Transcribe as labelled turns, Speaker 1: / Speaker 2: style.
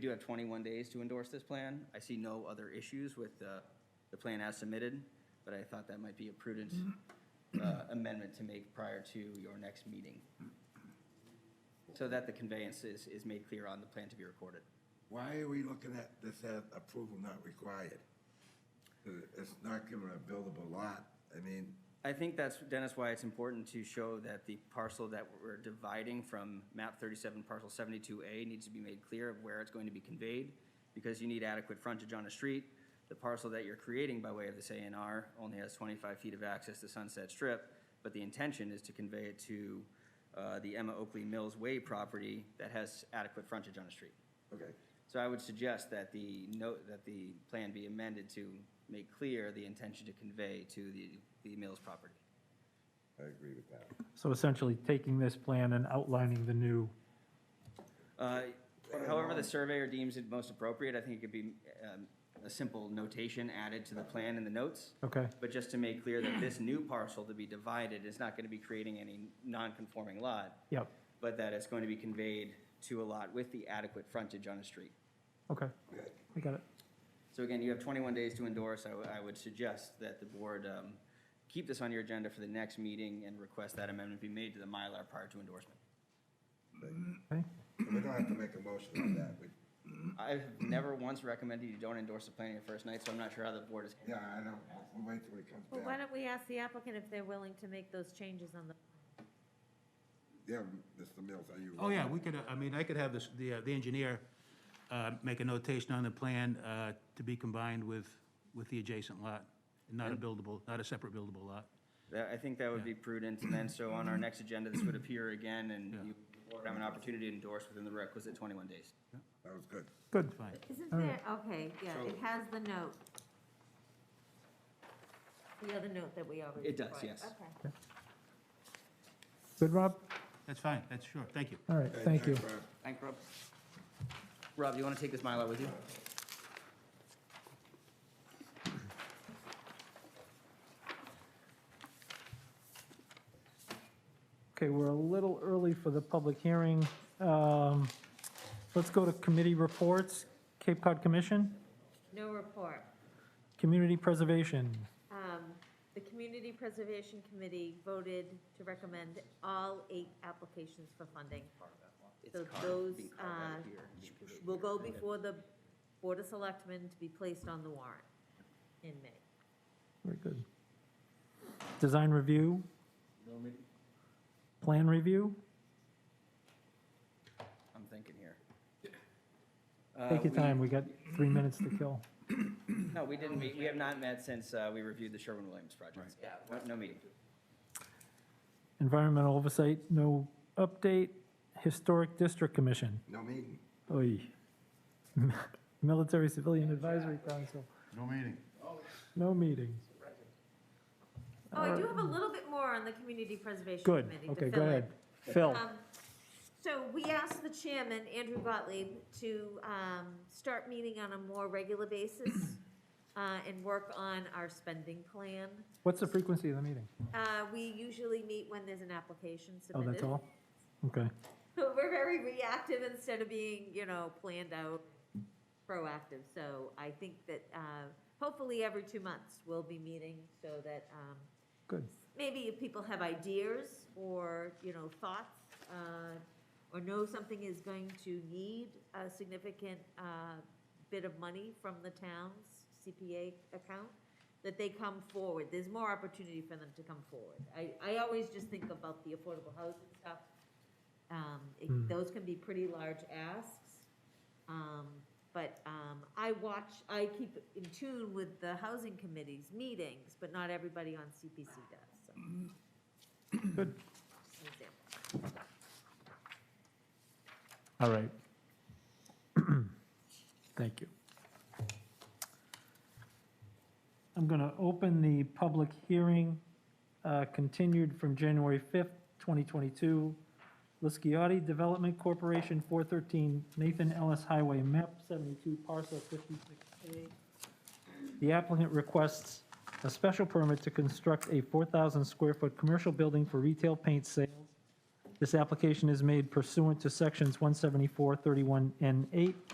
Speaker 1: We do have 21 days to endorse this plan. I see no other issues with the, the plan as submitted, but I thought that might be a prudent uh, amendment to make prior to your next meeting. So that the conveyance is, is made clear on the plan to be recorded.
Speaker 2: Why are we looking at this as approval not required? Uh, It's not giving a buildable lot. I mean,
Speaker 1: I think that's, Dennis, why it's important to show that the parcel that we're dividing from map thirty-seven, parcel seventy-two A needs to be made clear of where it's going to be conveyed, because you need adequate frontage on a street. The parcel that you're creating by way of this A and R only has twenty-five feet of access to Sunset Strip, but the intention is to convey it to, uh, the Emma Oakley Mills Way property that has adequate frontage on a street.
Speaker 2: okay,
Speaker 1: So I would suggest that the note, that the plan be amended to make clear the intention to convey to the, the Mills property.
Speaker 2: I agree with that.
Speaker 3: So essentially taking this plan and outlining the new,
Speaker 1: Uh, However, the surveyor deems it most appropriate, I think it could be um, a simple notation added to the plan in the notes.
Speaker 3: okay,
Speaker 1: But just to make clear that this new parcel to be divided is not going to be creating any non-conforming lot,
Speaker 3: yep,
Speaker 1: but that it's going to be conveyed to a lot with the adequate frontage on a street.
Speaker 3: okay, I got it.
Speaker 1: So again, you have 21 days to endorse. I w- I would suggest that the board um, keep this on your agenda for the next meeting and request that amendment be made to the Mylar prior to endorsement.
Speaker 3: Okay,
Speaker 2: We don't have to make a motion on that. We,
Speaker 1: I've never once recommended you don't endorse the plan your first night, so I'm not sure how the board is.
Speaker 2: yeah, I don't, we'll wait till he comes
Speaker 4: Well, why
Speaker 2: back.
Speaker 4: don't we ask the applicant if they're willing to make those changes on the,
Speaker 2: Yeah, Mr. Mills, are you?
Speaker 5: Oh, yeah, we could, uh, I mean, I could have this, the, uh, the engineer, uh, make a notation on the plan, uh, to be combined with, with the adjacent lot, not a buildable, not a separate buildable lot.
Speaker 1: That- I think that would be prudent, and then, so on our next agenda, this would appear again, and you would have an opportunity to endorse within the requisite 21 days.
Speaker 2: That was good.
Speaker 3: good,
Speaker 5: Fine.
Speaker 4: isn't
Speaker 3: All
Speaker 4: there,
Speaker 3: right.
Speaker 4: okay, yeah, it
Speaker 1: So-
Speaker 4: has the note. The other note that we already.
Speaker 1: It does,
Speaker 4: required.
Speaker 1: yes.
Speaker 4: Okay.
Speaker 3: good, Rob?
Speaker 5: That's fine, that's sure, thank you.
Speaker 3: All right,
Speaker 2: Okay,
Speaker 3: thank you.
Speaker 2: thanks, Rob.
Speaker 1: Thank Rob. Rob, you want to take this Mylar with you?
Speaker 3: Okay, we're a little early for the public hearing. Um, Let's go to committee reports. Cape Cod Commission,
Speaker 4: No report.
Speaker 3: Community Preservation.
Speaker 4: Um, The Community Preservation Committee voted to recommend all eight applications for funding.
Speaker 1: It's
Speaker 4: So
Speaker 1: carved-
Speaker 4: those,
Speaker 1: being carved out
Speaker 4: uh,
Speaker 1: here.
Speaker 4: Will go before the Board of Selectmen to be placed on the warrant in May.
Speaker 3: Very good. Design Review. Plan Review.
Speaker 1: I'm thinking here.
Speaker 3: Take your
Speaker 1: Uh, we-
Speaker 3: time, we got three minutes to kill.
Speaker 1: No, we didn't meet, we have not met since uh, we reviewed the Sherwin-Williams project. Yeah. No meeting.
Speaker 3: Environmental Oversight, no update. Historic District Commission.
Speaker 2: No meeting.
Speaker 3: Oy. Military Civilian Advisory Council,
Speaker 2: No meeting.
Speaker 3: no meetings.
Speaker 4: Oh, I do have a little bit more on the Community Preservation
Speaker 3: Good,
Speaker 4: Committee. to
Speaker 3: okay, go
Speaker 4: fill in.
Speaker 3: ahead. Phil,
Speaker 4: Um, So we asked the chairman, Andrew Gottlieb, to um, start meeting on a more regular basis uh, and work on our spending plan.
Speaker 3: what's the frequency of the meeting?
Speaker 4: Uh, We usually meet when there's an application
Speaker 3: Oh,
Speaker 4: submitted.
Speaker 3: that's all? Okay,
Speaker 4: But We're very reactive instead of being, you know, planned out, proactive. So I think that uh, hopefully every two months we'll be meeting so that um,
Speaker 3: good.
Speaker 4: maybe if people have ideas or, you know, thoughts, uh, or know something is going to need a significant uh, bit of money from the town's CPA account, that they come forward. There's more opportunity for them to come forward. I, I always just think about the affordable housing stuff. Um, it- Those can be pretty large asks. Um, But um, I watch, I keep in tune with the housing committee's meetings, but not everybody on CPC does, so.
Speaker 3: Good.
Speaker 4: just an example.
Speaker 3: All right. Thank you. I'm going to open the public hearing, uh, continued from January 5th, 2022. Lisciotti Development Corporation, 413 Nathan Ellis Highway, map 72, parcel 56A. The applicant requests a special permit to construct a 4,000-square-foot commercial building for retail paint sales this application is made pursuant to Sections 174, 31, and 8